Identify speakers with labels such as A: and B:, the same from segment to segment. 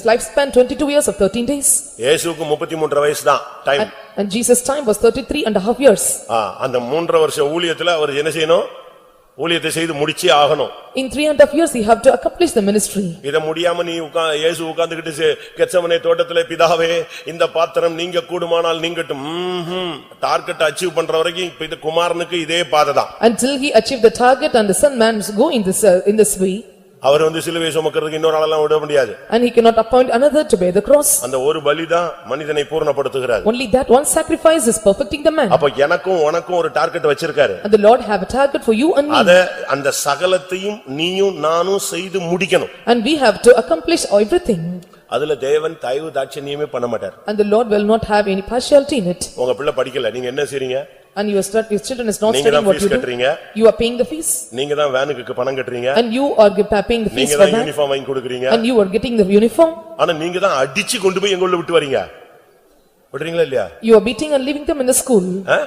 A: His lifespan twenty-two years of thirteen days
B: இயேசுக்கு முப்பத்தி மூன்றரை வயசு தான் time
A: and and Jesus' time was thirty-three and a half years.
B: அந்த மூன்றரை வருஷம் ஊழியத்துல அவர் என்ன செய்யணும் ஊழியத்தை செய்து முடிச்சே ஆகணும்
A: In three and a half years, he have to accomplish the ministry.
B: இத முடியாம நீ உட்கா இயேசு உட்கார்ந்துகிட்டு கெச்சமனை தோட்டத்திலே பிதாவே இந்த பாத்திரம் நீங்க கூடுமானால் நீங்கட்டும் ம்ஹும். டார்கெட் அச்சீவ் பண்ற வரைக்கும் இப்ப இது குமாரனுக்கு இதே பாதை தான்
A: Until he achieved the target and the son man go in this uh, in this way
B: அவர் வந்து சிலுவை சுமக்கிறதுக்கு இன்னொரு ஆளெல்லாம் விட முடியாது
A: and he cannot appoint another to bear the cross.
B: அந்த ஒரு பலிதான் மனிதனை பூர்ணப்படுத்துகிறார்
A: Only that one sacrifice is perfecting the man.
B: அப்ப எனக்கும் உனக்கும் ஒரு டார்கெட் வச்சிருக்காரு
A: And the Lord have a target for you and me
B: அத அந்த சகலத்தையும் நீயும் நானும் செய்து முடிக்கணும்
A: and we have to accomplish everything.
B: அதுல தேவன் தயவு தாட்சணியமே பண்ண மாட்டார்
A: And the Lord will not have any partiality in it.
B: உங்க பிள்ளை படிக்கல நீங்க என்ன செய்றீங்க
A: And your stud- your children is not
B: நீங்க
A: studying
B: தான்
A: what you
B: ஃபீஸ்
A: do.
B: கட்டுறீங்க
A: You are paying the fees
B: நீங்க தான் வேனுக்கு பணம் கட்டுறீங்க
A: and you are ge- paying the fees
B: நீங்க
A: for
B: தான்
A: that
B: யூனிஃபார்ம் வாங்கி கொடுக்குறீங்க
A: and you are getting the uniform.
B: ஆனா நீங்க தான் அடிச்சு கொண்டு போய் எங்க உள்ள விட்டு வரீங்க விடுறீங்களா இல்லையா
A: You are beating and leaving them in the school
B: ஆ?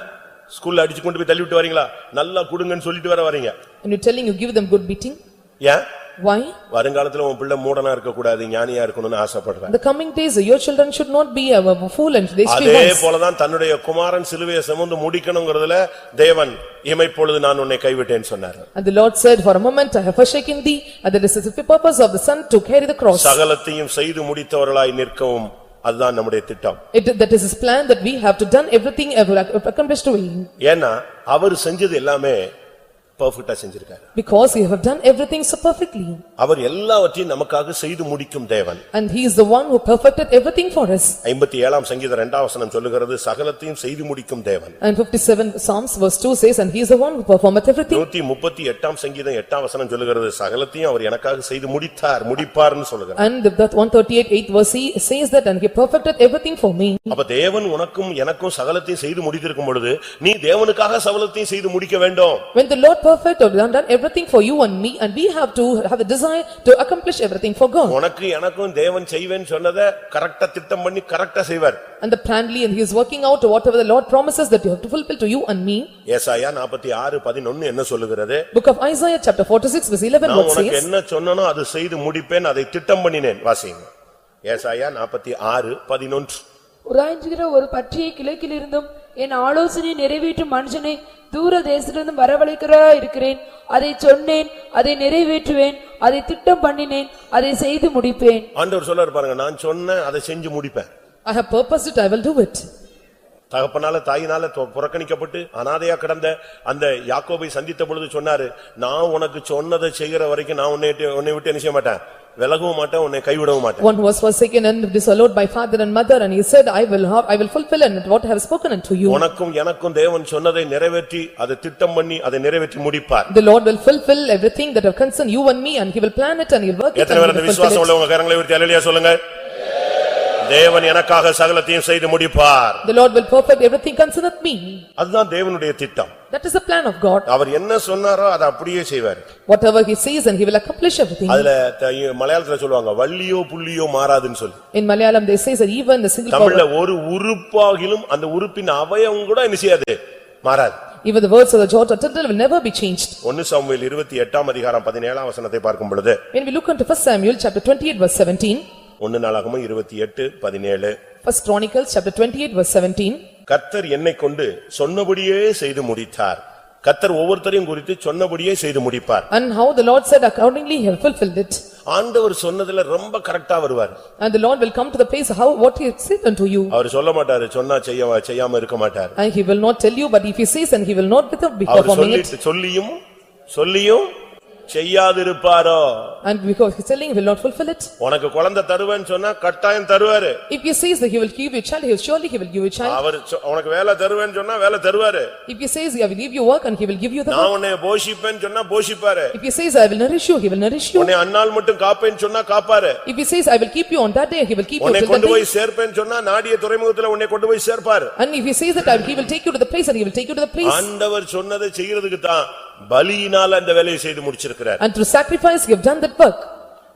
B: ஸ்கூல்ல அடிச்சு கொண்டு போய் தள்ளி விட்டு வரீங்களா நல்லா கொடுங்கன்னு சொல்லிட்டு வர வரீங்க
A: and you're telling you give them good beating.
B: ஏன்
A: Why?
B: வருங்காலத்துல உன் பிள்ளை மூடனா இருக்க கூடாது ஞானியா இருக்கணும்னு ஆசைப்படுறேன்
A: The coming days, your children should not be a fool and they should be
B: அதே
A: wise.
B: போலதான் தன்னுடைய குமாரன் சிலுவையை சுமந்து முடிக்கணுங்கிறதுல தேவன் இமைப்பொழுது நான் உன்னை கைவிட்டேன்னு சொன்னார்
A: And the Lord said, "For a moment I have forsaken thee, and that is the purpose of the son to carry the cross."
B: சகலத்தையும் செய்து முடித்தவர்களாய் நிற்கவும் அதுதான் நம்முடைய திட்டம்
A: It that is his plan that we have to done everything ever accomplished to him,
B: ஏன்னா அவர் செஞ்சது எல்லாமே பர்ஃபெக்டா செஞ்சிருக்காரு
A: because he have done everything so perfectly,
B: அவர் எல்லாவற்றையும் நமக்காக செய்து முடிக்கும் தேவன்
A: and he is the one who perfected everything for us.
B: ஐம்பத்தி ஏழாம் சங்கீத இரண்டாம் வசனம் சொல்லுகிறது சகலத்தையும் செய்து முடிக்கும் தேவன்
A: And fifty-seven Psalms verse two says, "And he is the one who performeth everything."
B: நூத்தி முப்பத்தி எட்டாம் சங்கீதம் எட்டாம் வசனம் சொல்லுகிறது சகலத்தையும் அவர் எனக்காக செய்து முடித்தார் முடிப்பார்னு சொல்லுகிறார்
A: And that one thirty-eight eighth verse he says that, "And he perfected everything for me."
B: அப்ப தேவன் உனக்கும் எனக்கும் சகலத்தையும் செய்து முடித்திருக்கும் பொழுது நீ தேவனுக்காக சகலத்தையும் செய்து முடிக்க வேண்டும்
A: When the Lord perfect or done done everything for you and me, and we have to have the desire to accomplish everything for God.
B: உனக்கு எனக்கும் தேவன் செய்வேன்னு சொன்னதை கரெக்டா திட்டம் பண்ணி கரெக்டா செய்வார்
A: And the planly and he is working out whatever the Lord promises that you have to fulfill to you and me.
B: ஏசாயா நாற்பத்தி ஆறு பதினொன்னு என்ன சொல்லுகிறது
A: Book of Isaiah, chapter forty-six, verse eleven,
B: நான்
A: what
B: உனக்கு
A: says?
B: என்ன சொன்னனோ அது செய்து முடிப்பேன் அதை திட்டம் பண்ணினேன் வாசிங்க ஏசாயா நாற்பத்தி ஆறு பதினொன்று
C: உராய்ஞ்சுகிற ஒரு பற்றியை கிழக்கிலிருந்தும் என் ஆலோசனையை நிறைவேற்றும் மனுஷனை தூர தேசத்திலிருந்து வரவழைக்கிறா இருக்கிறேன் அதை சொன்னேன் அதை நிறைவேற்றுவேன் அதை திட்டம் பண்ணினேன் அதை செய்து முடிப்பேன்
B: ஆண்டவர் சொல்ல பாருங்க நான் சொன்னேன் அதை செஞ்சு முடிப்பேன்
A: I have purposed it, I will do it.
B: தகப்பனால தாயினால தொ- புறக்கணிக்கப்பட்டு அனாதையா கிடந்த அந்த யாக்கோபை சந்தித்த பொழுது சொன்னாரு நான் உனக்கு சொன்னதை செய்கிற வரைக்கும் நான் உன்னை விட்டு- உன்னை விட்டு என்ன செய்ய மாட்டேன் விலகவும் மாட்டேன் உன்னை கைவிடவும் மாட்டேன்
A: One who was forsaken and disallowed by father and mother, and he said, "I will have, I will fulfill and what I have spoken unto you."
B: உனக்கும் எனக்கும் தேவன் சொன்னதை நிறைவேற்றி அதை திட்டம் பண்ணி அதை நிறைவேற்றி முடிப்பார்
A: The Lord will fulfill everything that have concerned you and me, and he will plan it and he will work it
B: எத்தனை
A: and
B: பேர்
A: he
B: அந்த
A: will
B: விசுவாசம்
A: fulfill it.
B: உள்ளவங்க கரங்களை உயர்த்தி அல்லேலூயா சொல்லுங்க தேவன் எனக்காக சகலத்தையும் செய்து முடிப்பார்
A: The Lord will perfect everything concerned me.
B: அதுதான் தேவனுடைய திட்டம்
A: That is the plan of God.
B: அவர் என்ன சொன்னாரோ அதை அப்படியே செய்வார்
A: Whatever he says, and he will accomplish everything.
B: அதுல த- மலையாளத்துல சொல்லுவாங்க வள்ளியோ புள்ளியோ மாறாதுன்னு சொல்லி
A: In Malayalam, they says that even a single power,
B: தமிழ்ல ஒரு உறுப்பாகிலும் அந்த உறுப்பின் அவயவம் கூட என்ன செய்யாது மாறாது
A: even the words of the jot or tittle will never be changed.
B: ஒன்னு சாமுவேல் இருபத்தி எட்டாம் அதிகாரம் பதினேழாம் வசனத்தை பார்க்கும் பொழுது
A: When we look into first Samuel, chapter twenty-eight, verse seventeen,
B: ஒன்னு நாளாகமும் இருபத்தி எட்டு பதினேழு
A: first Chronicles, chapter twenty-eight, verse seventeen,
B: கர்த்தர் என்னைக் கொண்டு சொன்னபடியே செய்து முடித்தார் கர்த்தர் ஒவ்வொருத்தரையும் குறித்து சொன்னபடியே செய்து முடிப்பார்
A: and how the Lord said accordingly, he have fulfilled it.
B: ஆண்டவர் சொன்னதுல ரொம்ப கரெக்டா வருவார்
A: And the Lord will come to the place how, what he said unto you.
B: அவர் சொல்ல மாட்டாரு சொன்னா செய்ய செய்யாம இருக்க மாட்டார்
A: And he will not tell you, but if he says, and he will not without be
B: our
A: performing it.
B: சொல்லிட்டு சொல்லியும் சொல்லியும் செய்யாதிருப்பாரோ
A: And because he's telling, he will not fulfill it.
B: உனக்கு குழந்தை தருவேன்னு சொன்னா கட்டாயம் தருவாரு
A: If he says that he will give you a child, he will surely he will give you a child.
B: அவர் சொ- உனக்கு வேலை தருவேன்னு சொன்னா வேலை தருவாரு
A: If he says, I will give you work, and he will give you the work.
B: நான் உன்னை போஷிப்பேன்னு சொன்னா போஷிப்பாரு
A: If he says, I will nourish you, he will nourish you.
B: உன்னை அந்நாள் மட்டும் காப்பேன்னு சொன்னா காப்பாரு
A: If he says, I will keep you on that day, he will keep you
B: உன்னை
A: till that
B: கொண்டு
A: day.
B: போய் சேர்ப்பேன்னு சொன்னா நாடிய துறைமுகத்துல உன்னை கொண்டு போய் சேர்ப்பாரு
A: And if he says that, I will- he will take you to the place, and he will take you to the place.
B: ஆண்டவர் சொன்னதை செய்யறதுக்கு தான் பலியினால அந்த வேலையை செய்து முடிச்சிருக்கிறார்
A: And through sacrifice, you have done that work.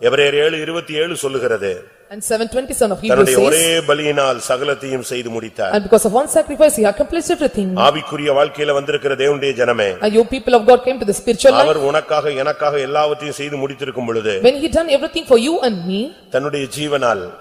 B: எபிரேயர் ஏழு இருபத்தி ஏழு சொல்லுகிறது
A: And seven twenty-seven of Hebrews
B: தன்னுடைய ஒரே
A: says,
B: பலியினால் சகலத்தையும் செய்து முடித்தார்
A: and because of one sacrifice, he accomplished everything.
B: ஆவிக்குரிய வாழ்க்கையில வந்திருக்கிற தேவனுடைய ஜனமே
A: And you people of God came to the spiritual life,
B: அவர் உனக்காக எனக்காக எல்லாவற்றையும் செய்து முடித்திருக்கும் பொழுது
A: when he done everything for you and me,
B: தன்னுடைய ஜீவனால்